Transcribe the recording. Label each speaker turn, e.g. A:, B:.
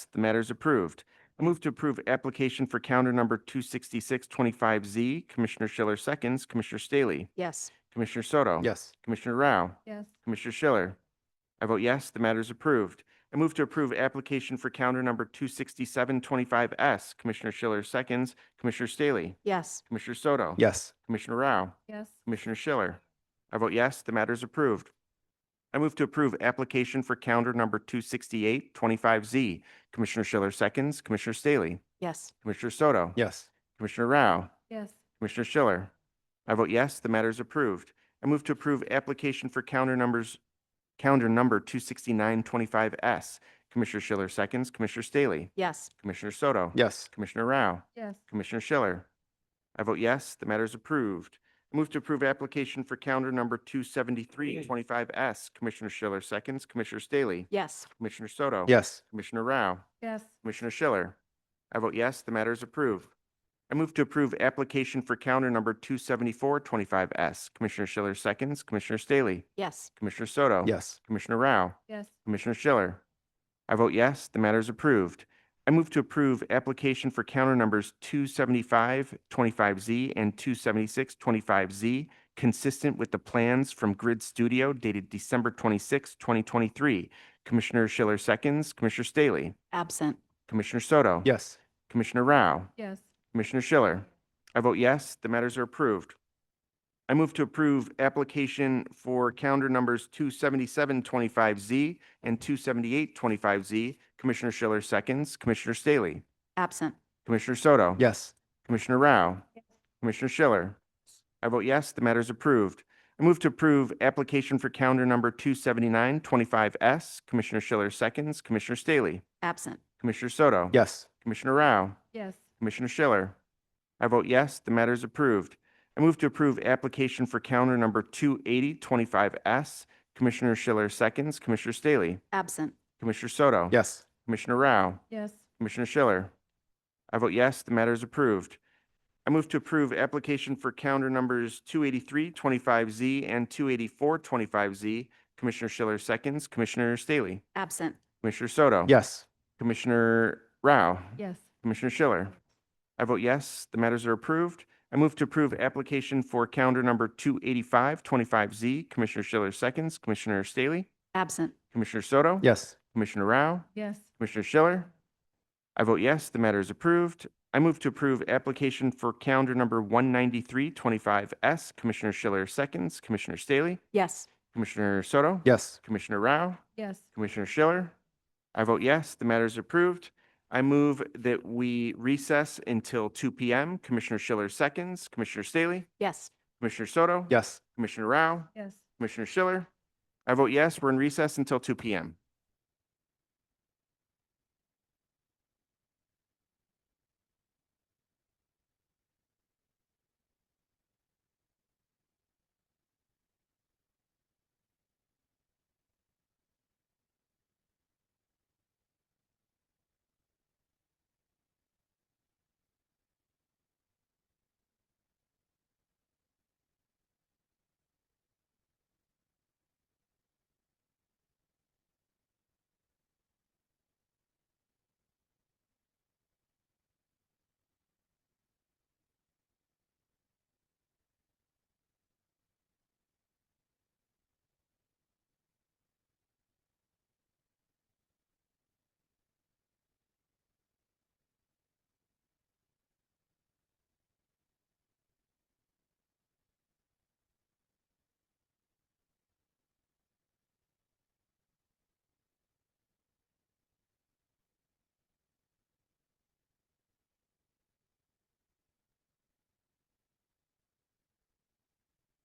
A: The matter is approved. I move to approve application for counter number 26625Z. Commissioner Schiller seconds, Commissioner Staley,
B: Yes.
A: Commissioner Soto.
C: Yes.
A: Commissioner Rao.
B: Yes.
A: Commissioner Schiller. I vote yes, the matter is approved. I move to approve application for counter number 26725S. Commissioner Schiller seconds, Commissioner Staley,
B: Yes.
A: Commissioner Soto.
C: Yes.
A: Commissioner Rao.
B: Yes.
A: Commissioner Schiller. I vote yes, the matter is approved. I move to approve application for counter number 26825Z. Commissioner Schiller seconds, Commissioner Staley,
B: Yes.
A: Commissioner Soto.
C: Yes.
A: Commissioner Rao.
B: Yes.
A: Commissioner Schiller. I vote yes, the matter is approved. I move to approve application for counter numbers, calendar number 26925S. Commissioner Schiller seconds, Commissioner Staley,
B: Yes.
A: Commissioner Soto.
C: Yes.
A: Commissioner Rao.
B: Yes.
A: Commissioner Schiller. I vote yes, the matter is approved. I Move to approve application for calendar number 27325S. Commissioner Schiller seconds, Commissioner Staley,
B: Yes.
A: Commissioner Soto.
C: Yes.
A: Commissioner Rao.
B: Yes.
A: Commissioner Schiller. I vote yes, the matter is approved. I move to approve application for counter number 27425S. Commissioner Schiller seconds, Commissioner Staley,
B: Yes.
A: Commissioner Soto.
C: Yes.
A: Commissioner Rao.
B: Yes.
A: Commissioner Schiller. I vote yes, the matter is approved. I move to approve application for counter numbers 27525Z and 27625Z, consistent with the plans from Grid Studio dated December 26, 2023. Commissioner Schiller seconds, Commissioner Staley,
B: Absent.
A: Commissioner Soto.
C: Yes.
A: Commissioner Rao.
B: Yes.
A: Commissioner Schiller. I vote yes, the matters are approved. I move to approve application for calendar numbers 27725Z and 27825Z. Commissioner Schiller seconds, Commissioner Staley,
B: Absent.
A: Commissioner Soto.
C: Yes.
A: Commissioner Rao. Commissioner Schiller. I vote yes, the matter is approved. I move to approve application for calendar number 27925S. Commissioner Schiller seconds, Commissioner Staley,
B: Absent.
A: Commissioner Soto.
C: Yes.
A: Commissioner Rao.
B: Yes.
A: Commissioner Schiller. I vote yes, the matter is approved. I move to approve application for counter number 28025S. Commissioner Schiller seconds, Commissioner Staley,
B: Absent.
A: Commissioner Soto.
C: Yes.
A: Commissioner Rao.
B: Yes.
A: Commissioner Schiller. I vote yes, the matter is approved. I move to approve application for calendar numbers 28325Z and 28425Z. Commissioner Schiller seconds, Commissioner Staley,
B: Absent.
A: Commissioner Soto.
C: Yes.
A: Commissioner Rao.
B: Yes.
A: Commissioner Schiller. I vote yes, the matters are approved. I move to approve application for calendar number 28525Z. Commissioner Schiller seconds, Commissioner Staley,
B: Absent.
A: Commissioner Soto.
C: Yes.
A: Commissioner Rao,
B: Yes.
A: Commissioner Schiller. I vote yes, the matter is approved. I move to approve application for calendar number 19325S. Commissioner Schiller seconds, Commissioner Staley,
B: Yes.
A: Commissioner Soto.
C: Yes.
A: Commissioner Rao.
B: Yes.
A: Commissioner Schiller. I vote yes, the matter is approved. I move that we recess until two P M. Commissioner Schiller seconds, Commissioner Staley,
B: Yes.
A: Commissioner Soto.
C: Yes.
A: Commissioner Rao,
B: Yes.
A: Commissioner Schiller. I vote yes, we're in recess until two P M.